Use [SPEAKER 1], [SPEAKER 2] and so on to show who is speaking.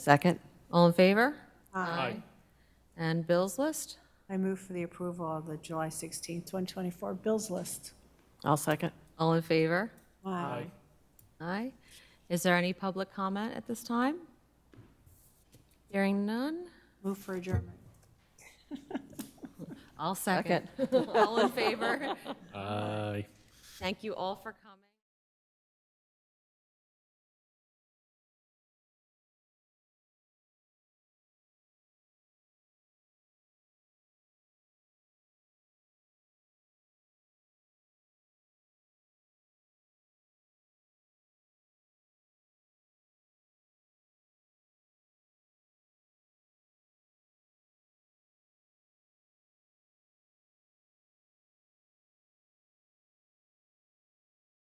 [SPEAKER 1] Second?
[SPEAKER 2] All in favor? Aye. And Bill's list?
[SPEAKER 3] I move for the approval of the July 16th, 2024 bills list.
[SPEAKER 1] I'll second.
[SPEAKER 2] All in favor?
[SPEAKER 3] Aye.
[SPEAKER 2] Aye. Is there any public comment at this time? Hearing none?
[SPEAKER 3] Move for adjournment.
[SPEAKER 2] I'll second. All in favor?
[SPEAKER 4] Aye.
[SPEAKER 2] Thank you all for coming.